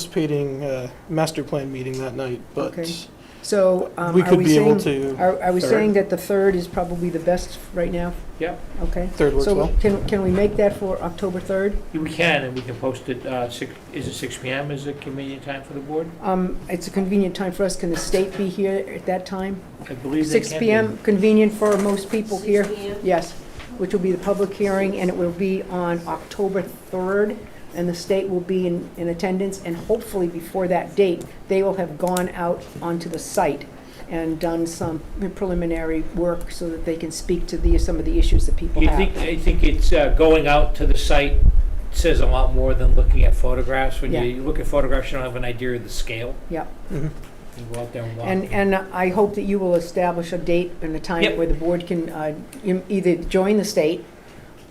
anticipating a master plan meeting that night, but Okay. So um, we are could we be able saying, to, are are we Third. saying that the 3rd is probably the best right now? Yep. Okay. third works So well. can, can we make that for October 3rd? We can, and we can post it, uh, six, is it six PM is a convenient time for the board? Um, It's a convenient time for us. Can the state be here at that time? I believe they can. Six be. PM, convenient for most people here? Six Yes, which will be the public hearing, and it will be on October 3rd, and the state will be in, in attendance, and hopefully before that date, they will have gone out onto the site and done some preliminary work so that they can speak to the, some of the issues that people You have. think, I think it's, uh, going out to the site says a lot more than looking at photographs. When you- Yeah. you look at photographs, you don't have an idea of the scale. Yep. Mhm. You go out there and walk. And, and I hope that you will establish a date and a time Yep. where the board can uh, im- either join the state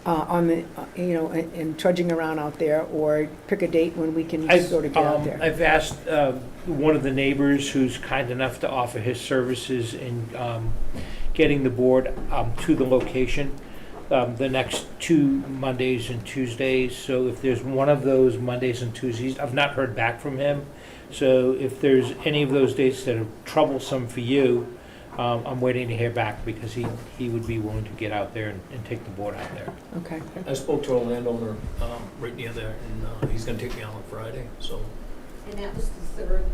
uh, on the, uh, you know, and and trudging around out there, or pick a date when we can I've, sort of get out um, there. I've asked uh, one of the neighbors who's kind enough to offer his services in um, getting the board um, to the location um, the next two Mondays and Tuesdays. So if there's one of those Mondays and Tuesdays, I've not heard back from him. So if there's any of those dates that are troublesome for you, um, I'm waiting to hear back because he, he would be willing to get out there and, and take the board out there. Okay, I spoke to a landowner um, right near there, and uh, he's going to take me out on Friday, so. And that was the third,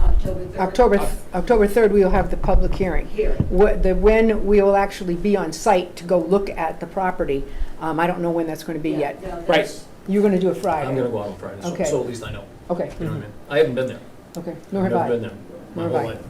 October third. October, th- October 3rd, we will have the public hearing. Here. What, the, when we will actually be on site to go look at the property, um, I don't know when that's gonna be Yeah, yet. no, that's- Right. You're gonna do it I'm going to Friday? go out on Friday, so- Okay. so at least I know, Okay, Mm-hmm. you know what I mean? I haven't been there. okay, nor have Never I. been there, my Nor whole have I. life.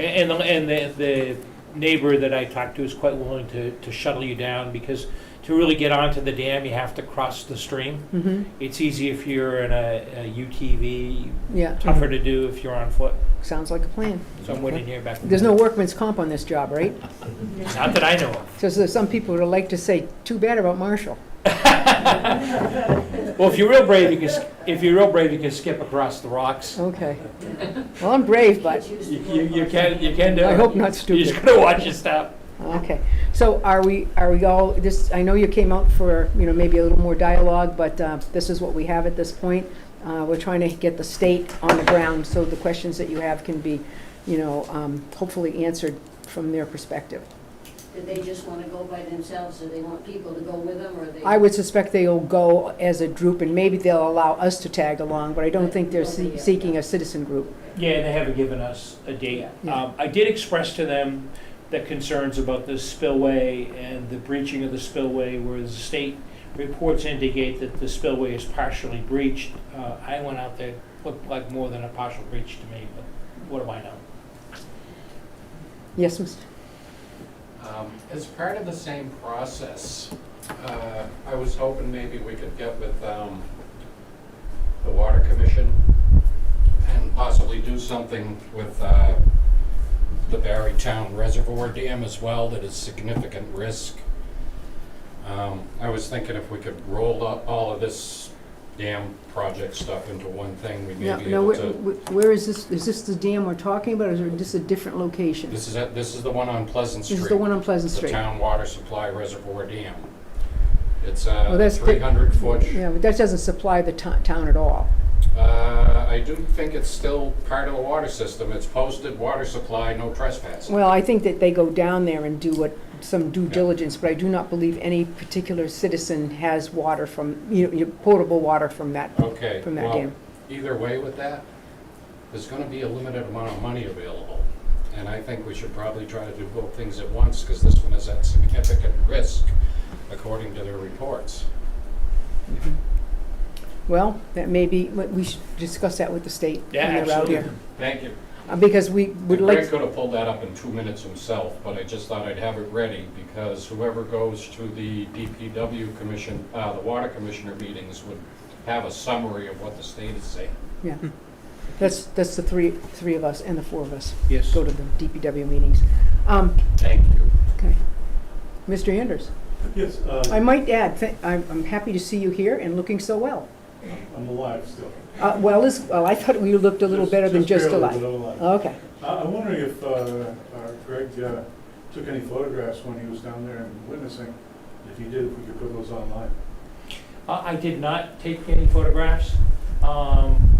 And, and the, the neighbor that I talked to is quite willing to, to shuttle you down because to really get onto the dam, you have to cross the stream. hmm It's easy if you're in a, a UTV, yeah, tougher to do if you're on foot. sounds like a plan. So I'm waiting to hear back. from There's you. no workman's comp on this job, right? Not that I know of. So there's some people would like to say, too bad about Marshall. Well, if you're real brave, you can, s- if you're real brave, you can skip across the rocks. Okay. Well, I'm brave, You but, choose the You, fourth you you one. can, you can do it. I hope not You stupid. just gotta watch your step. okay. So are we, are we all, this, I know you came out for, you know, maybe a little more dialogue, but uh, this is what we have at this point. Uh, We're trying to get the state on the ground, so the questions that you have can be, you know, um, hopefully answered from their perspective. Did they just want to go by themselves, or they want people to go with them, or they? I would suspect they'll go as a group, and maybe they'll allow us to tag along, but I don't think they're se- seeking a citizen group. Yeah, they haven't given us a date. Yeah. Um, I did express to them the concerns about the spillway and the breaching of the spillway, where the state reports indicate that the spillway is partially breached. Uh, I went out there, looked like more than a partial breach to me, but what do I know? Yes, Mr.? Um, As part of the same process, uh, I was hoping maybe we could get with um, the Water Commission and possibly do something with uh, the Barrytown Reservoir Dam as well that is significant risk. Um, I was thinking if we could roll up all of this dam project stuff into one thing, we No, may be no, able where, to. where- where is this, is this the dam we're talking about, or is it just a different location? This is, it- this is the one on Pleasant Street. This is the one on Pleasant the Street? town water supply reservoir dam. It's Oh, a that's big. 300 foot, Yeah, but that doesn't supply the to- town at all. uh, I do think it's still part of the water system. It's posted water supply, no trespassing. Well, I think that they go down there and do what, some due Yeah. diligence, but I do not believe any particular citizen has water from, you know, potable water from that, Okay, from that well, dam. either way with that, there's gonna be a limited amount of money available. And I think we should probably try to do both things at once, because this one is at significant risk, according to their reports. Well, that may be, we we should discuss that with the state Yeah, when they're out here. Thank you. Uh, Because we would And Greg like, could have pulled that up in two minutes himself, but I just thought I'd have it ready, because whoever goes to the DPW commission, uh, the water commissioner meetings would have a summary of what the state is saying. that's, that's the three, three of us and the four of us Yes. go to the DPW meetings. Um, Thank you. Mr. Anders? Yes, uh, I might add, th- I'm, I'm happy to see you here and looking so well. I'm alive still. Uh, well, is, well, I thought we looked a little better than just barely, alive. but I'm alive. Okay, I- I'm wondering if uh, uh, Greg uh, took any photographs when he was down there and witnessing. If he did, if we Uh, could put those online. I, I did not take any photographs. Um,